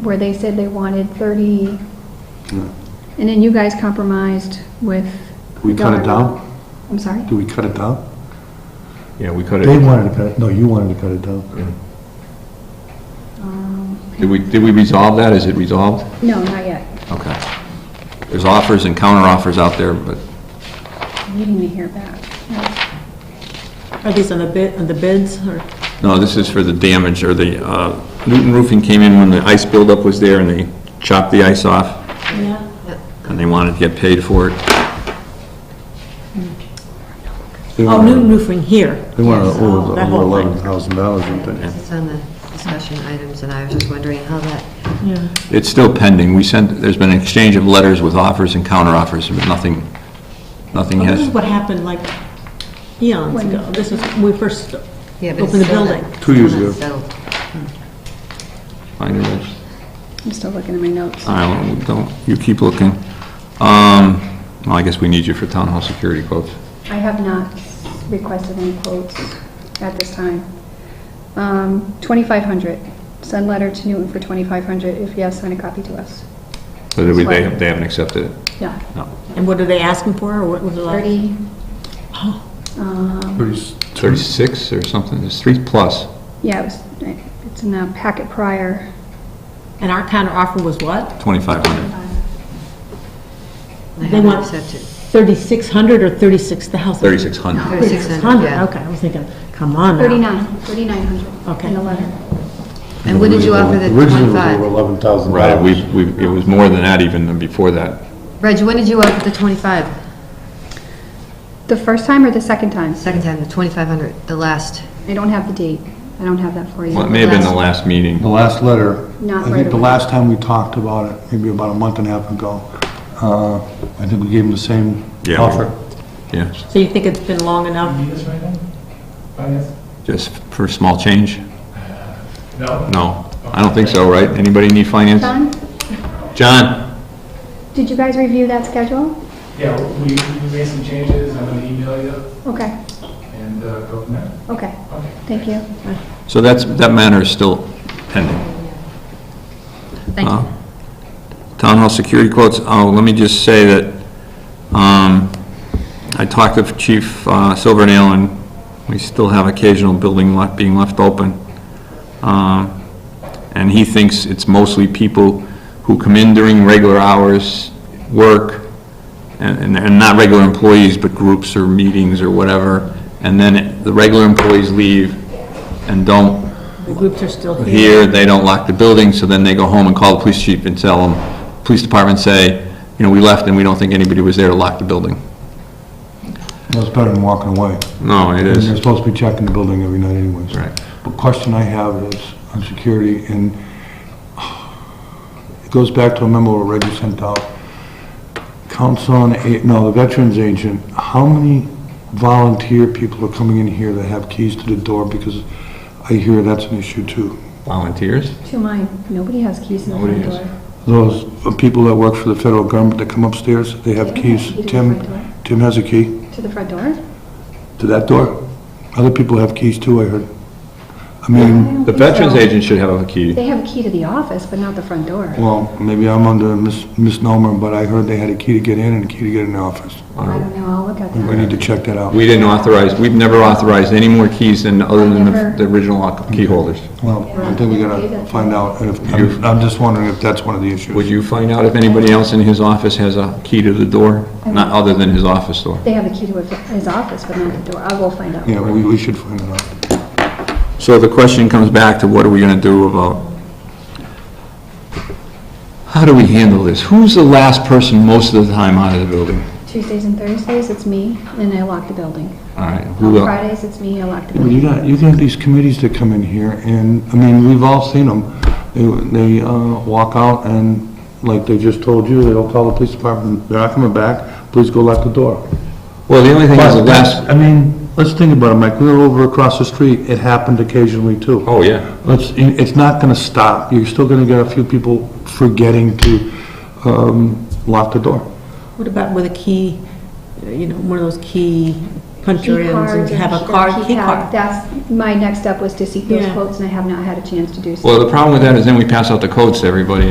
where they said they wanted thirty, and then you guys compromised with. We cut yard. it down? I'm sorry? Do we cut it down? Yeah, we cut They it. wanted to cut it, no, you wanted to cut it down. Did we, did we resolve that? Is it resolved? No, not yet. Okay. There's offers and counteroffers out there, but I'm Waiting to hear back. Are these on the bid, on the bids, or? No, this is for the damage, or the, uh, Newton Roofing came in when the ice buildup was there, and they chopped the ice off, Yeah. and they wanted to get paid for it. They Oh, wanted- Newton Roofing here. They wanted Yes, um, oh, over that whole thing. eleven thousand dollars, I think. It's on the discussion items, and I was just wondering how that, Yeah, It's still pending. We sent, there's been an exchange of letters with offers and counteroffers, but nothing, nothing Well, this is has, what happened like eons When- ago, this was, when we first yeah, but it's opened the still building. not- Two years still not ago. settled. I know it's- I'm still looking at my notes. I don't, don't, you keep looking. Um, well, I guess we need you for town hall security quotes. I have not requested any quotes at this time. Um, twenty-five hundred. Send letter to Newton for twenty-five hundred. If yes, send a copy to us. So that we- they, they haven't accepted it? Yeah. No. And what are they asking for, or what was it like? Thirty, um, Pretty s- 36 or something, it's three plus. yeah, it was, it's in the packet prior. And our counter offer was what? 2,500. They They haven't want- accepted. Thirty-six hundred or thirty-six thousand? 3,600. 3,600, yeah. Okay, I was thinking, come on now. Thirty-nine, thirty-nine hundred. Okay. In the letter. And what did you offer the Originally, it was over 25? eleven thousand dollars. Right, we, we, it was more than that even than before that. Reg, what did you offer the 25? The first time or the second time? Second time, the 2,500, the last. I don't have the date. I don't have that for you. Well, it may have been the last meeting. The last letter, Not I right think the away. last time we talked about it, maybe about a month and a half ago, uh, I think we gave them the same Yeah, we- offer. Yes, So you think it's been long enough? just for small change? No, No, I don't think so, right? Anybody need finance? John, John? did you guys review that schedule? yeah, we, we made some changes, I'm gonna email you Okay, and uh, go from there. okay. Okay. Thank you. So that's, that matter is still pending. Uh, Thank you. Town hall security quotes, oh, let me just say that, um, I talked to Chief uh, Silvernail and we still have occasional building left, being left open. Um, and he thinks it's mostly people who come in during regular hours, work, and, and- and not regular employees, but groups or meetings or whatever, and then it- the regular employees leave and don't The groups are still here. here, they don't lock the building, so then they go home and call the police chief and tell them, police department say, you know, we left and we don't think anybody was there to lock the building. Well, it's better than walking away. No, it And they're supposed to be checking the building every night anyways. Right. But question I have is on security, and it goes back to a memo that Reggie sent out. Council on, A- no, the Veterans Agent, how many volunteer people are coming in here that have keys to the door? Because I hear that's an issue too. Volunteers? To mine, nobody has keys in the front Nobody door. has. Those people that work for the federal government that come upstairs, they have They don't keys. have a key to the Tim, front door. Tim has a key To the front door? to that door. Other people have keys too, I heard. I mean... Mm-hmm. The veterans agent should have a key. They have a key to the office, but not the front door. Well, maybe I'm under mis- misnomer, but I heard they had a key to get in and a key to get in the office. I don't know, I'll look at We that. need to check that out. We didn't authorize, we've never authorized any more keys than, other than the- the original lock- key holders. Well, I think we gotta find out, and if, I'm- I'm just wondering if that's one of the Would issues. you find out if anybody else in his office has a key to the door? Not other than his office door. They have a key to his office, but not the door. I will find out. Yeah, we, we should find it out. So the question comes back to what are we going to do about, how do we handle this? Who's the last person most of the time out of the building? Tuesdays and Thursdays, it's me, and I lock the building. All right, On who else? Fridays, it's me, I lock the Well, you building. got, you got these committees that come in here, and, I mean, we've all seen them. They, they, uh, walk out and, like they just told you, they'll call the police department, they're not coming back, please go lock the door. Well, the only thing is the But last, that's, I mean, let's think about it, Mike, we were over across the street, it happened occasionally too. oh, yeah. Let's, it's not gonna stop, you're still gonna get a few people forgetting to, um, lock the door. What about with a key, you know, one of those key key puncher in and cards or have a key- card, key keypad. card. That's, my next step was to seek those Yeah. quotes, and I have not had a chance to do so. Well, the problem with that is then we pass out the codes to everybody,